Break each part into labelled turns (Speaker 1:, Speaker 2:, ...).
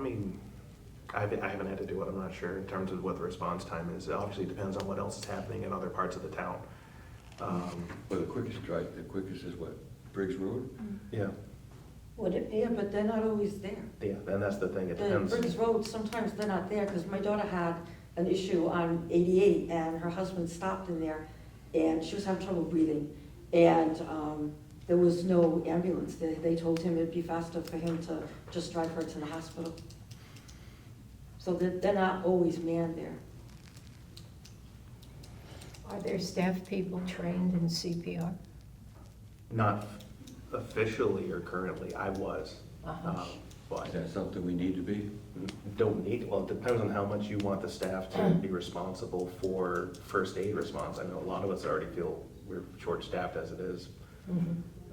Speaker 1: mean, I haven't, I haven't had to do it, I'm not sure in terms of what the response time is. It obviously depends on what else is happening in other parts of the town. Um,
Speaker 2: Well, the quickest drive, the quickest is what, Briggs Road?
Speaker 1: Yeah,
Speaker 3: Would it be?
Speaker 4: Yeah, but they're not always there.
Speaker 1: yeah, and that's the thing, it
Speaker 4: The
Speaker 1: depends.
Speaker 4: Briggs Road, sometimes they're not there, because my daughter had an issue on eighty-eight, and her husband stopped in there, and she was having trouble breathing, and, um, there was no ambulance, they, they told him it'd be faster for him to just drive her to the hospital. So they're, they're not always manned there.
Speaker 3: Are there staff people trained in CPR?
Speaker 1: Not officially or currently, I was.
Speaker 3: Uh-huh.
Speaker 1: um, But
Speaker 2: Is that something we need to be?
Speaker 1: don't need, well, it depends on how much you want the staff to be responsible for first aid response. I know a lot of us already feel we're short-staffed as it is.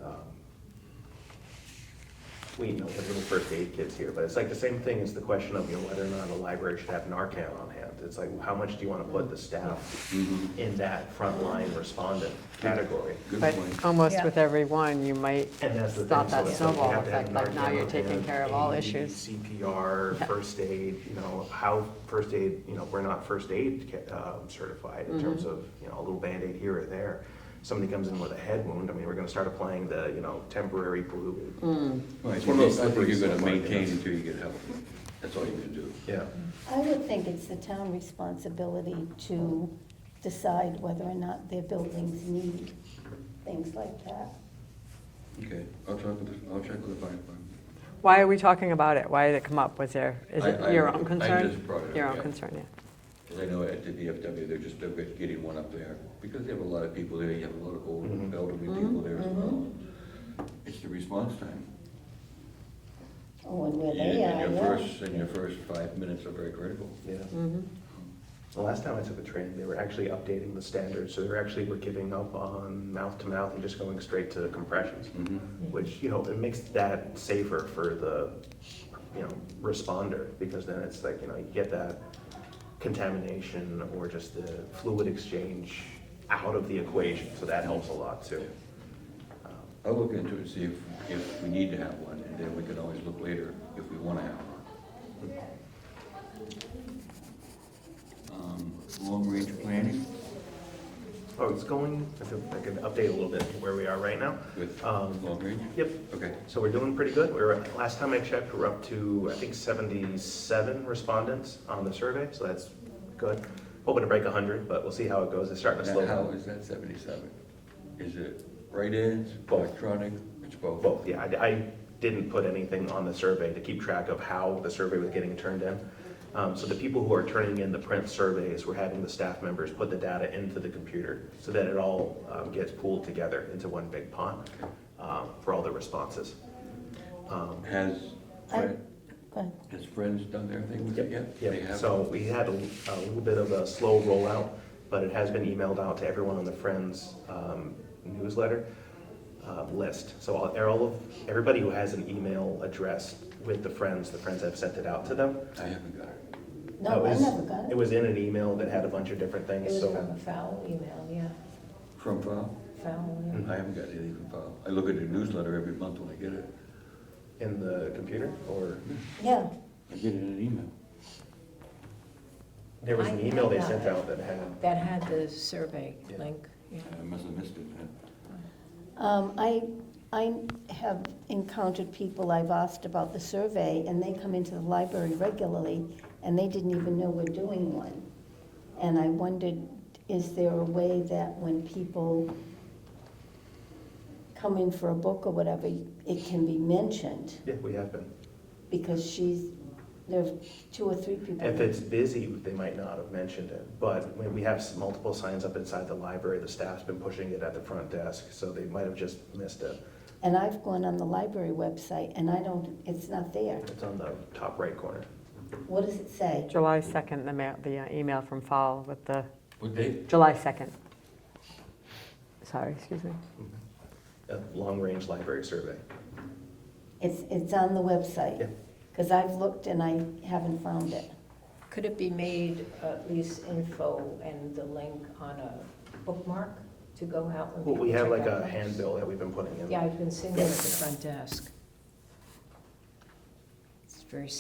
Speaker 1: Um, We know the little first aid kits here, but it's like the same thing as the question of, you know, whether or not a library should have Narcan on hand. It's like, how much do you want to put the staff
Speaker 2: Mhm.
Speaker 1: in that frontline respondent category?
Speaker 2: Good
Speaker 5: But um,
Speaker 2: point.
Speaker 5: almost
Speaker 3: Yeah.
Speaker 5: with every one, you might
Speaker 1: And that's the thing.
Speaker 5: stop that
Speaker 1: so it's like you
Speaker 5: snowball
Speaker 1: have to have
Speaker 5: effect, like now
Speaker 1: Narcan
Speaker 5: you're
Speaker 1: on
Speaker 5: taking
Speaker 1: hand,
Speaker 5: care of all
Speaker 1: AED,
Speaker 5: issues.
Speaker 1: CPR, first aid, you know, how first aid, you know, we're not first aid ca- um, certified in
Speaker 5: Mm-hmm.
Speaker 1: terms of, you know, a little Band-Aid here or there. Somebody comes in with a head wound, I mean, we're gonna start applying the, you know, temporary
Speaker 5: Mm.
Speaker 1: blue.
Speaker 2: Well, I
Speaker 1: It's one of those
Speaker 2: think you're gonna
Speaker 1: slippery
Speaker 2: maintain
Speaker 1: slope,
Speaker 2: until you get help. That's all you can do.
Speaker 1: Yeah.
Speaker 6: I would think it's the town responsibility to decide whether or not their buildings need things like that.
Speaker 2: Okay, I'll check with, the- I'll check with the fire department.
Speaker 5: Why are we talking about it? Why did it come up? Was there, is
Speaker 2: I- I-
Speaker 5: it your
Speaker 2: I
Speaker 5: own concern?
Speaker 2: just brought it up,
Speaker 5: Your own
Speaker 2: yeah.
Speaker 5: concern, yeah.
Speaker 2: Because I know at the DFW, they're just, they're getting one up there, because they have a lot of people there, you have a lot of old
Speaker 1: Mhm.
Speaker 2: elderly people there as well. It's the response time.
Speaker 6: Oh, and where
Speaker 2: And
Speaker 6: they
Speaker 2: and
Speaker 6: are,
Speaker 2: your
Speaker 6: yeah.
Speaker 2: first, and your first five minutes are very critical.
Speaker 1: Yeah. The last time I took a training, they were actually updating the standards, so they were actually, were giving up on mouth-to-mouth and just going straight to compressions. Which, you know, it makes that safer for the, you know, responder, because then it's like, you know, you get that contamination or just the fluid exchange out of the equation, so that helps a lot too.
Speaker 2: I'll look into it, and see if, if we need to have one, and then we can always look later if we wanna have one. Um, Long-range planning
Speaker 1: Oh, it's going, I feel I can update a little bit where we are right now.
Speaker 2: with,
Speaker 1: Um,
Speaker 2: long-range?
Speaker 1: Yep,
Speaker 2: Okay,
Speaker 1: So we're doing pretty good. We We're, last time I checked, we're up to, I think, 77 respondents on the survey, so that's good. Hoping to break 100, but we'll see how it goes. It's starting to slow
Speaker 2: now how
Speaker 1: down.
Speaker 2: is that seventy-seven? Is it write-ins,
Speaker 1: Both.
Speaker 2: electronic, it's both?
Speaker 1: Both, yeah, I, I didn't put anything on the survey to keep track of how the survey was getting turned in. Um, So the people who are turning in the print surveys, we're having the staff members put the data into the computer so that it all um, gets pooled together into one big pond um, for all the responses. Um,
Speaker 2: Has,
Speaker 6: I-
Speaker 2: Fred-
Speaker 6: Uh, Go ahead.
Speaker 2: has Friends done their thing with it yet? They
Speaker 1: Yeah,
Speaker 2: have?
Speaker 1: so we had a, a little bit of a slow rollout, but it has been emailed out to everyone on the Friends um, newsletter uh, list. So all, all of, everybody who has an email address with the Friends, the Friends have sent it out to them.
Speaker 2: I haven't got it.
Speaker 1: It
Speaker 6: No, I
Speaker 1: was-
Speaker 6: never got
Speaker 1: It
Speaker 6: it.
Speaker 1: was in an email that had a bunch of different
Speaker 3: It
Speaker 1: things,
Speaker 3: was
Speaker 1: so.
Speaker 3: from a foul email, yeah,
Speaker 2: From file?
Speaker 3: foul, yeah.
Speaker 1: Mm-hmm.
Speaker 2: I haven't got anything from file. I look at the newsletter every month when I get it.
Speaker 1: In the computer, or,
Speaker 6: Yeah,
Speaker 2: I get it in an email.
Speaker 1: there was an
Speaker 3: I-
Speaker 1: email they
Speaker 3: I
Speaker 1: sent
Speaker 3: got it.
Speaker 1: out that had,
Speaker 3: That had the survey
Speaker 1: Yeah.
Speaker 3: link, yeah.
Speaker 2: I must have missed it then.
Speaker 6: um, I, I have encountered people I've asked about the survey, and they come into the library regularly, and they didn't even know we're doing one. And I wondered, is there a way that when people come in for a book or whatever, it can be mentioned?
Speaker 1: yeah, we have been.
Speaker 6: because she's, there are two or three people.
Speaker 1: If it's busy, they might not have mentioned it, but when we have s- multiple signs up inside the library, the staff's been pushing it at the front desk, so they might have just missed it.
Speaker 6: And I've gone on the library website and I don't, it's not there.
Speaker 1: It's on the top right corner.
Speaker 6: What does it say?
Speaker 5: July 2nd, the ma, the uh, email from Fall with the,
Speaker 2: What date?
Speaker 5: July 2nd. Sorry, excuse me.
Speaker 1: a long-range library survey.
Speaker 6: It's, it's on the website.
Speaker 1: Yeah.
Speaker 6: Because I've looked and I haven't found it.
Speaker 3: Could it be made at least info and the link on a bookmark to go out when
Speaker 1: Well,
Speaker 3: people
Speaker 1: we have
Speaker 3: check
Speaker 1: like
Speaker 3: out
Speaker 1: a
Speaker 3: books?
Speaker 1: handbill that we've been putting in.
Speaker 3: Yeah, I've been seeing it at the front desk. It's very